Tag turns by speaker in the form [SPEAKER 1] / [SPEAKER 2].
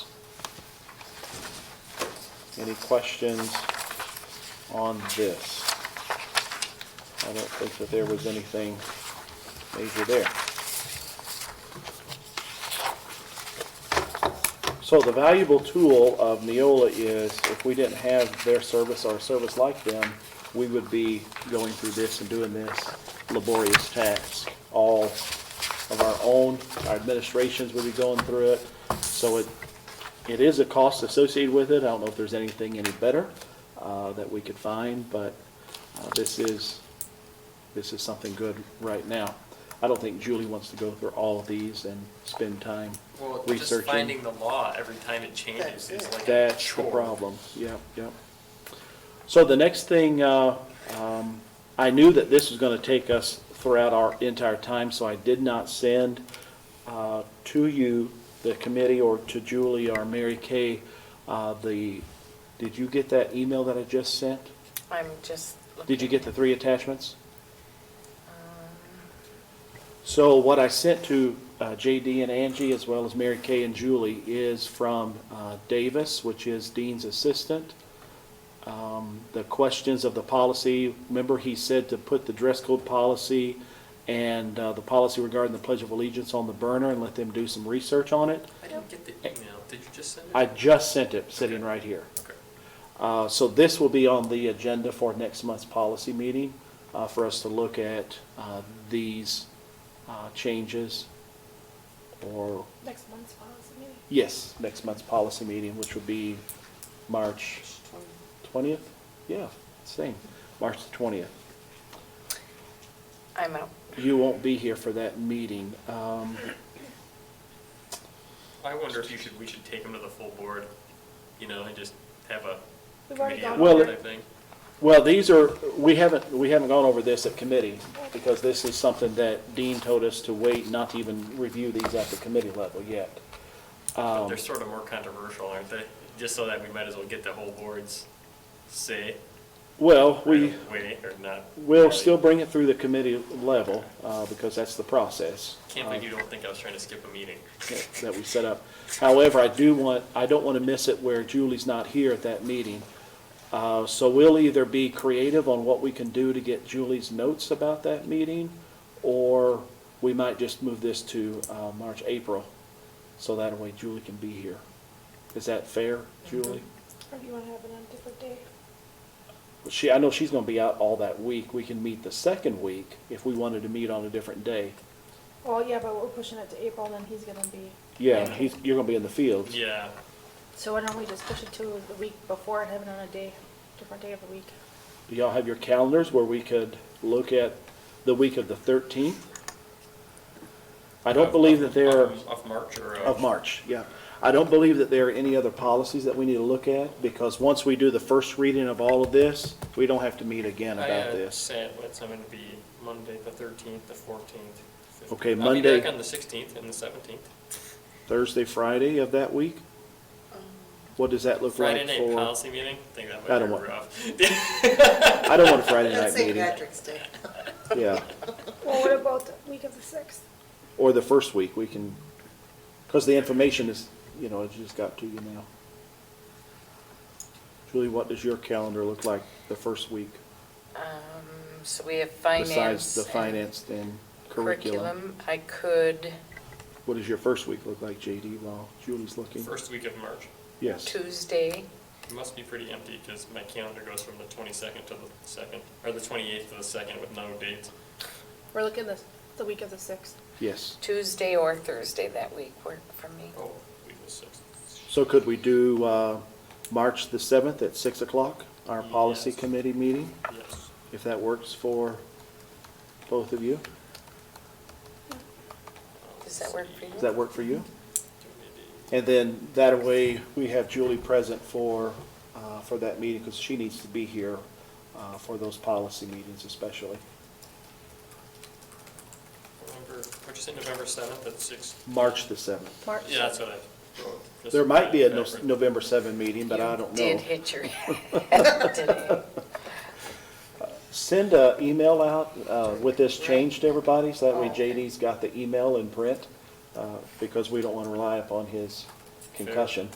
[SPEAKER 1] Any questions on this? I don't think that there was anything major there. So the valuable tool of Neola is if we didn't have their service or a service like them, we would be going through this and doing this laborious task. All of our own, our administrations would be going through it. So it, it is a cost associated with it. I don't know if there's anything any better uh, that we could find, but uh, this is, this is something good right now. I don't think Julie wants to go through all of these and spend time
[SPEAKER 2] Well, just
[SPEAKER 1] researching.
[SPEAKER 2] finding the law every time it changes
[SPEAKER 3] That's
[SPEAKER 2] is
[SPEAKER 3] it.
[SPEAKER 2] like a
[SPEAKER 1] That's the
[SPEAKER 2] chore.
[SPEAKER 1] problem, yep, yep. So the next thing, uh, um, I knew that this was gonna take us throughout our entire time, so I did not send uh, to you, the committee, or to Julie or Mary Kay, uh, the, did you get that email that I just sent?
[SPEAKER 3] I'm just.
[SPEAKER 1] Did you get the three attachments?
[SPEAKER 3] Um,
[SPEAKER 1] So what I sent to uh, JD and Angie, as well as Mary Kay and Julie, is from uh, Davis, which is Dean's assistant. Um, The questions of the policy, remember he said to put the dress code policy and uh, the policy regarding the Pledge of Allegiance on the burner and let them do some research on it?
[SPEAKER 2] I didn't get the email. Did you just send it?
[SPEAKER 1] I just sent it, sitting right here.
[SPEAKER 2] Okay.
[SPEAKER 1] Uh, So this will be on the agenda for next month's policy meeting uh, for us to look at uh, these uh, changes or,
[SPEAKER 4] Next month's policy meeting.
[SPEAKER 1] yes, next month's policy meeting, which will be March 20th? Yeah, same, March the 20th.
[SPEAKER 3] I'm out.
[SPEAKER 1] You won't be here for that meeting. Um,
[SPEAKER 2] I wonder if you should, we should take them to the full board, you know, and just have a
[SPEAKER 4] We've already
[SPEAKER 2] committee
[SPEAKER 4] gone
[SPEAKER 2] on
[SPEAKER 1] Well,
[SPEAKER 2] it,
[SPEAKER 1] it-
[SPEAKER 2] I think.
[SPEAKER 1] Well, these are, we haven't, we haven't gone over this at committee, because this is something that Dean told us to wait, not to even review these at the committee level yet.
[SPEAKER 2] But
[SPEAKER 1] Um,
[SPEAKER 2] They're sort of more controversial, aren't they? Just so that we might as well get the whole board's say,
[SPEAKER 1] Well, we, Uh,
[SPEAKER 2] right away, or not.
[SPEAKER 1] we'll
[SPEAKER 2] really.
[SPEAKER 1] still bring it through the committee level, uh, because that's the process.
[SPEAKER 2] Can't
[SPEAKER 1] uh,
[SPEAKER 2] believe you don't think I was trying to skip a meeting.
[SPEAKER 1] that- That we set up. However, I do want, I don't want to miss it where Julie's not here at that meeting. Uh, So we'll either be creative on what we can do to get Julie's notes about that meeting, or we might just move this to uh, March, April, so that way Julie can be here. Is that fair, Julie?
[SPEAKER 4] Or do you want to have it on a different day?
[SPEAKER 1] She, I know she's going to be out all that week. We can meet the second week if we wanted to meet on a different day.
[SPEAKER 4] Well, yeah, but we're pushing it to April, then he's gonna be,
[SPEAKER 1] Yeah, he's, you're going to be in the field.
[SPEAKER 2] Yeah,
[SPEAKER 4] so why don't we just push it to the week before and have it on a day, different day of the week?
[SPEAKER 1] Do y'all have your calendars where we could look at the week of the 13th? I don't
[SPEAKER 2] Of-
[SPEAKER 1] believe that there,
[SPEAKER 2] of- Of March or? uh,
[SPEAKER 1] of March, yeah. I don't believe that there are any other policies that we need to look at, because once we do the first reading of all of this, we don't have to meet again
[SPEAKER 2] I,
[SPEAKER 1] about
[SPEAKER 2] uh,
[SPEAKER 1] this.
[SPEAKER 2] Say it's going to be Monday, the thirteenth, the fourteenth.
[SPEAKER 1] Okay, Monday-
[SPEAKER 2] I'll be back on the sixteenth and the seventeenth.
[SPEAKER 1] Thursday, Friday of that week? What does that look
[SPEAKER 2] Friday
[SPEAKER 1] like
[SPEAKER 2] night
[SPEAKER 1] for?
[SPEAKER 2] policy meeting, I think that
[SPEAKER 1] I
[SPEAKER 2] might
[SPEAKER 1] don't
[SPEAKER 2] be
[SPEAKER 1] want-
[SPEAKER 2] rough.
[SPEAKER 1] I don't want a Friday night
[SPEAKER 3] That's St.
[SPEAKER 1] meeting,
[SPEAKER 3] Patrick's Day.
[SPEAKER 1] yeah.
[SPEAKER 4] Well, what about the week of the sixth?
[SPEAKER 1] Or the first week, we can, because the information is, you know, it just got to you now. Julie, what does your calendar look like the first week?
[SPEAKER 3] Um, so we have finance.
[SPEAKER 1] Besides the
[SPEAKER 3] and
[SPEAKER 1] finance and curriculum.
[SPEAKER 3] I could
[SPEAKER 1] What does your first week look like, JD, while Julie's looking?
[SPEAKER 2] First week of March,
[SPEAKER 1] Yes.
[SPEAKER 3] Tuesday,
[SPEAKER 2] it must be pretty empty because my calendar goes from the twenty-second to the second, or the twenty-eighth to the second with no dates.
[SPEAKER 4] We're looking the, the week of the sixth.
[SPEAKER 1] Yes.
[SPEAKER 3] Tuesday or Thursday that week work for me.
[SPEAKER 2] Oh, week of the sixth.
[SPEAKER 1] So could we do uh, March the 7th at 6 o'clock, our policy
[SPEAKER 2] Yes.
[SPEAKER 1] committee meeting,
[SPEAKER 2] Yes.
[SPEAKER 1] if that works for both of you?
[SPEAKER 3] Does that work for you?
[SPEAKER 1] Does that work for you?
[SPEAKER 2] Maybe-
[SPEAKER 1] And then that way, we have Julie present for, uh, for that meeting, because she needs to be here uh, for those policy meetings especially.
[SPEAKER 2] November, what'd you say, November seventh at six?
[SPEAKER 1] March the 7th.
[SPEAKER 4] March.
[SPEAKER 2] Yeah, that's what I wrote. Just
[SPEAKER 1] There might be a No-
[SPEAKER 2] backwards.
[SPEAKER 1] November 7 meeting, but I don't
[SPEAKER 3] Did
[SPEAKER 1] know.
[SPEAKER 3] hit your head today.
[SPEAKER 1] Send an email out uh, with this change to everybody, so that
[SPEAKER 3] Oh,
[SPEAKER 1] way JD's got the email in print, uh, because we don't want to rely upon his concussion.